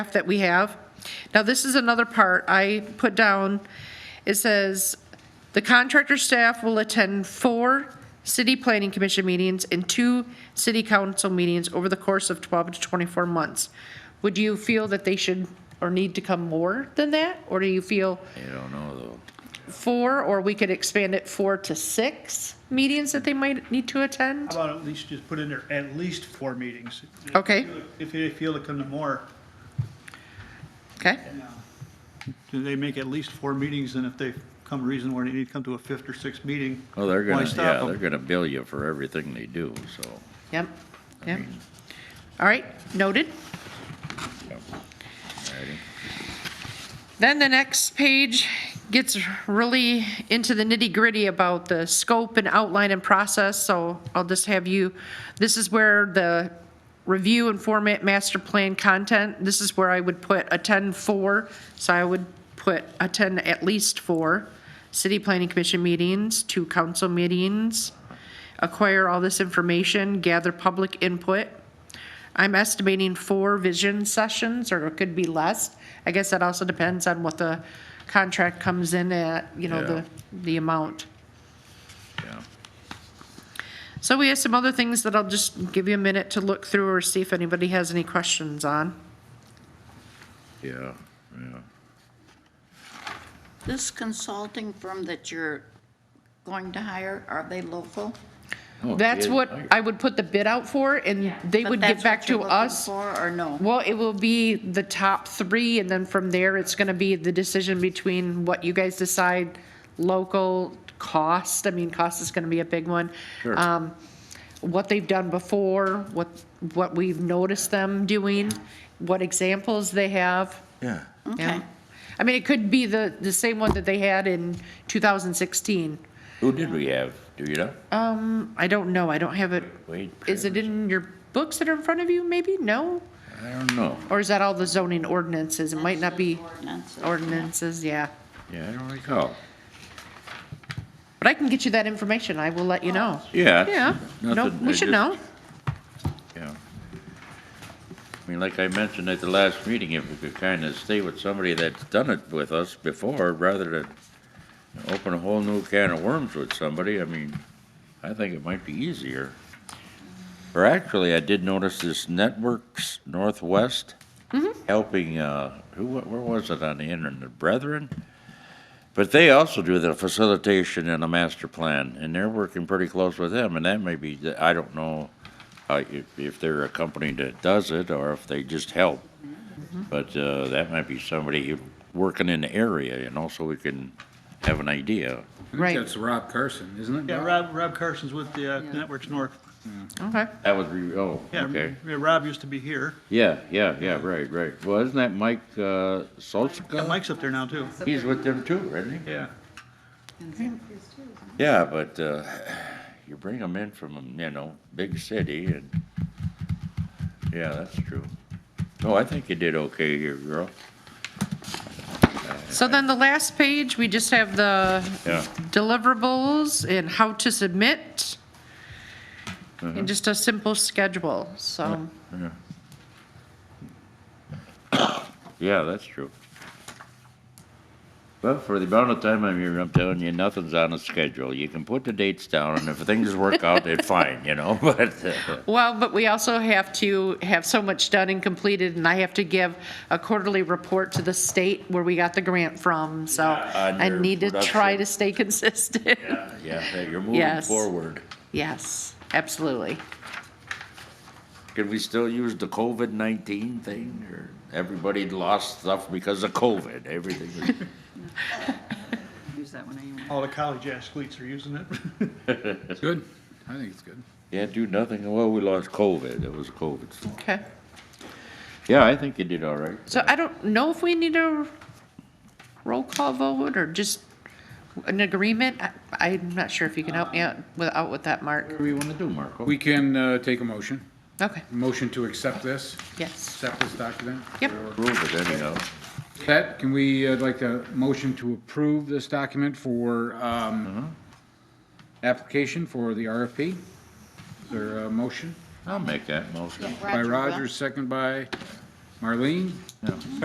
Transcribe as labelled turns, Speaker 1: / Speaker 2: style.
Speaker 1: that we have. Now, this is another part I put down. It says, "The contractor staff will attend four city planning commission meetings and two city council meetings over the course of 12 to 24 months." Would you feel that they should or need to come more than that? Or do you feel
Speaker 2: I don't know though.
Speaker 1: four, or we could expand it four to six meetings that they might need to attend?
Speaker 3: How about at least just put in there at least four meetings?
Speaker 1: Okay.
Speaker 3: If they feel to come to more,
Speaker 1: Okay?
Speaker 3: do they make at least four meetings, and if they come reason where they need to come to a fifth or sixth meeting?
Speaker 2: Well, Oh, they're
Speaker 3: why
Speaker 2: gonna,
Speaker 3: stop
Speaker 2: yeah,
Speaker 3: 'em?
Speaker 2: they're gonna bill you for everything they do, so.
Speaker 1: Yep, yep. All right, noted.
Speaker 2: yeah. Alrighty.
Speaker 1: Then the next page gets really into the nitty-gritty about the scope and outline and process, so I'll just have you, this is where the review and format master plan content, this is where I would put a ten-four, so I would put a ten at least four, city planning commission meetings, two council meetings, acquire all this information, gather public input. I'm estimating four vision sessions, or it could be less. I guess that also depends on what the contract comes in at, you know, the, the amount.
Speaker 2: Yeah.
Speaker 1: So we have some other things that I'll just give you a minute to look through or see if anybody has any questions on.
Speaker 2: Yeah, yeah.
Speaker 4: This consulting firm that you're going to hire, are they local?
Speaker 2: Oh,
Speaker 1: That's
Speaker 2: yeah,
Speaker 1: what
Speaker 2: I-
Speaker 1: I would put the bid out for, and they
Speaker 4: But
Speaker 1: would get
Speaker 4: that's
Speaker 1: back
Speaker 4: what you're
Speaker 1: to
Speaker 4: looking
Speaker 1: us.
Speaker 4: for, or no?
Speaker 1: Well, it will be the top three, and then from there, it's gonna be the decision between what you guys decide, local, cost, I mean, cost is gonna be a big one.
Speaker 2: Sure.
Speaker 1: Um, What they've done before, what, what we've noticed them doing, what examples they have.
Speaker 2: Yeah.
Speaker 1: yeah.
Speaker 4: Okay.
Speaker 1: I mean, it could be the, the same one that they had in 2016.
Speaker 2: Who did we have? Do you know?
Speaker 1: Um, I don't know, I don't have it,
Speaker 2: Wade
Speaker 1: is it
Speaker 2: Travers?
Speaker 1: in your books that are in front of you, maybe? No?
Speaker 2: I don't know.
Speaker 1: Or is that all the zoning ordinances? It might not be
Speaker 4: Ordinance.
Speaker 1: ordinances, yeah.
Speaker 2: Yeah, I don't recall.
Speaker 1: But I can get you that information, I will let you know.
Speaker 2: Yeah. it's
Speaker 1: Yeah, no,
Speaker 2: nothing, I
Speaker 1: we should
Speaker 2: just-
Speaker 1: know.
Speaker 2: Yeah. I mean, like I mentioned at the last meeting, if we could kind of stay with somebody that's done it with us before, rather than open a whole new can of worms with somebody, I mean, I think it might be easier. Or actually, I did notice this Networks Northwest helping, uh, who, wa- where was it on the internet, Brethren? But they also do the facilitation and the master plan, and they're working pretty close with them, and that may be, I don't know uh, if, if they're a company that does it, or if they just help.
Speaker 3: Mm-hmm.
Speaker 2: But, uh, that might be somebody working in the area, you know, so we can have an idea.
Speaker 5: I think
Speaker 1: Right.
Speaker 5: That's Rob Carson, isn't it?
Speaker 3: Yeah,
Speaker 5: Rob?
Speaker 3: Rob, Rob Carson's with the uh, Networks North.
Speaker 1: Okay,
Speaker 2: That was, re- oh,
Speaker 3: Yeah,
Speaker 2: okay.
Speaker 3: yeah, Rob used to be here.
Speaker 2: Yeah, yeah, yeah, right, right. Well, isn't that Mike, uh, Solzka?
Speaker 3: Yeah, Mike's up there now, too.
Speaker 2: He's with them too, isn't he?
Speaker 3: Yeah.
Speaker 2: Yeah, but, uh, you bring them in from, you know, big city and, yeah, that's true. No, I think you did okay here, girl.
Speaker 1: so then the last page, we just have the
Speaker 2: Yeah.
Speaker 1: deliverables and how to submit.
Speaker 2: Uh-huh.
Speaker 1: And just a simple schedule, so,
Speaker 2: Yeah, that's true. Well, for the amount of time I'm here, I'm telling you, nothing's on a schedule. You can put the dates down, and if things work out, then fine, you know, but, uh,
Speaker 1: well, but we also have to have so much done and completed, and I have to give a quarterly report to the state where we got the grant from, so
Speaker 2: Yeah, on
Speaker 1: I
Speaker 2: your
Speaker 1: need to try
Speaker 2: production.
Speaker 1: to stay consistent.
Speaker 2: yeah, hey, you're moving
Speaker 1: Yes.
Speaker 2: forward.
Speaker 1: Yes, absolutely.
Speaker 2: Can we still use the COVID-19 thing, or everybody lost stuff because of COVID, everything? was-
Speaker 4: Use that one anyway.
Speaker 3: All the college athletes are using it.
Speaker 5: It's good. I think it's good.
Speaker 2: Yeah, do nothing, well, we lost COVID, it was COVID.
Speaker 1: Okay.
Speaker 2: Yeah, I think you did all right.
Speaker 1: So I don't know if we need a roll call vote or just an agreement. I- I'm not sure if you can help me out with, out with that, Mark.
Speaker 2: What do you want to do, Marco?
Speaker 5: We can uh, take a motion,
Speaker 1: Okay,
Speaker 5: motion to accept this,
Speaker 1: yes.
Speaker 5: accept this document.
Speaker 1: Yep,
Speaker 2: Prove it anyhow.
Speaker 5: Pat, can we, uh, like, a motion to approve this document for um, application for the RFP? Is there a motion?
Speaker 2: I'll make that motion.
Speaker 5: By Roger, second by Marlene.
Speaker 2: Yeah.